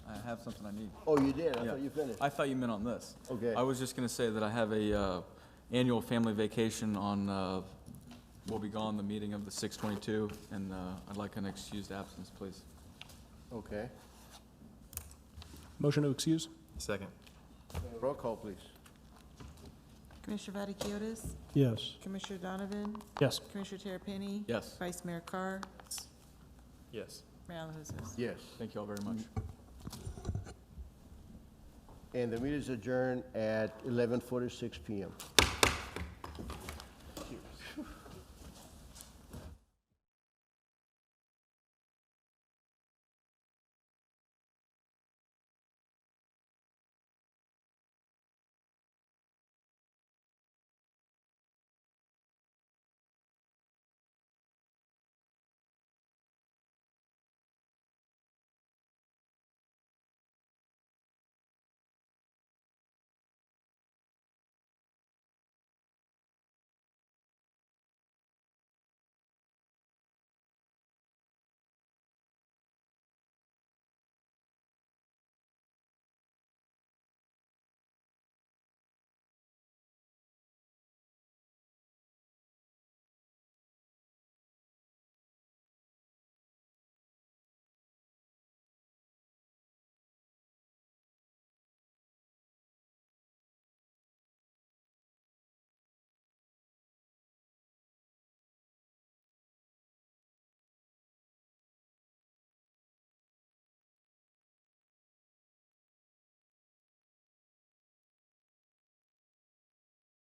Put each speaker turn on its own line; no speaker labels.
have something I need.
Oh, you did? I
Yeah.
thought you finished.
I thought you meant on this.
Okay.
I was just gonna say that I have a, uh, annual family vacation on, uh, we'll be gone, the meeting of the six twenty-two, and, uh, I'd like an excused absence, please.
Okay.
Motion to excuse?
Second.
Roll call, please.
Commissioner Vaticiotis?
Yes.
Commissioner Donovan?
Yes.
Commissioner Terrapini?
Yes,
Vice Mayor Carr?
Yes.
Mayor LaHousas?
Yes.
thank you all very much.
And the meeting is adjourned at 11:46 PM.